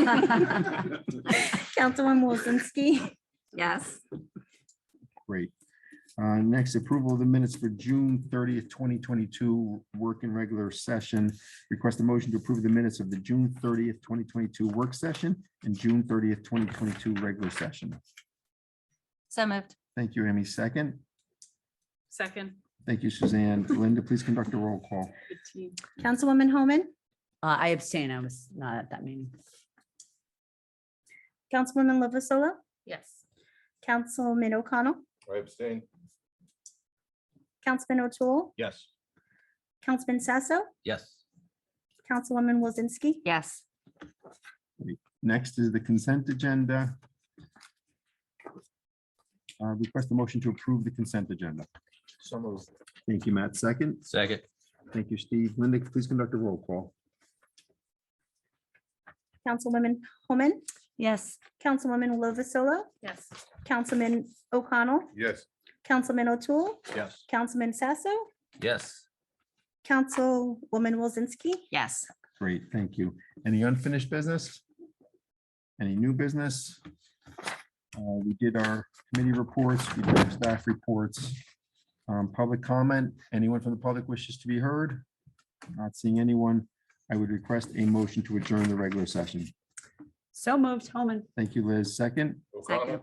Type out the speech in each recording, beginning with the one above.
Uh, Councilwoman Wozinski. Yes. Great. Uh, Next, approval of the minutes for June thirtieth, twenty twenty-two, work in regular session. Request a motion to approve the minutes of the June thirtieth, twenty twenty-two work session and June thirtieth, twenty twenty-two regular session. So moved. Thank you, Amy. Second. Second. Thank you, Suzanne. Linda, please conduct a roll call. fifteen. Councilwoman Homan, Uh, I abstain. I was not at that meeting. Councilwoman Lovasola, Yes. Councilman O'Connell, I abstain. Councilman O'Toole, Yes. Councilman Sasso, Yes. Councilwoman Wozinski. Yes. Next is the consent agenda. Uh, Request a motion to approve the consent agenda. So moved. Thank you, Matt. Second. Second. Thank you, Steve. Linda, please conduct a roll call. Councilwoman Homan, Yes. Councilwoman Lovasola, Yes. Councilman O'Connell, Yes. Councilman O'Toole, Yes. Councilman Sasso, Yes. Councilwoman Wozinski. Yes. Great, thank you. Any unfinished business? Any new business? Uh, We did our committee reports, we did our staff reports. Um, Public comment, anyone from the public wishes to be heard? Not seeing anyone. I would request a motion to adjourn the regular session. So moved, Homan. Thank you, Liz. Second, Second.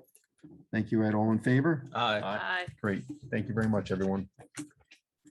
thank you, Ed. All in favor? Aye. Aye. Great. Thank you very much, everyone.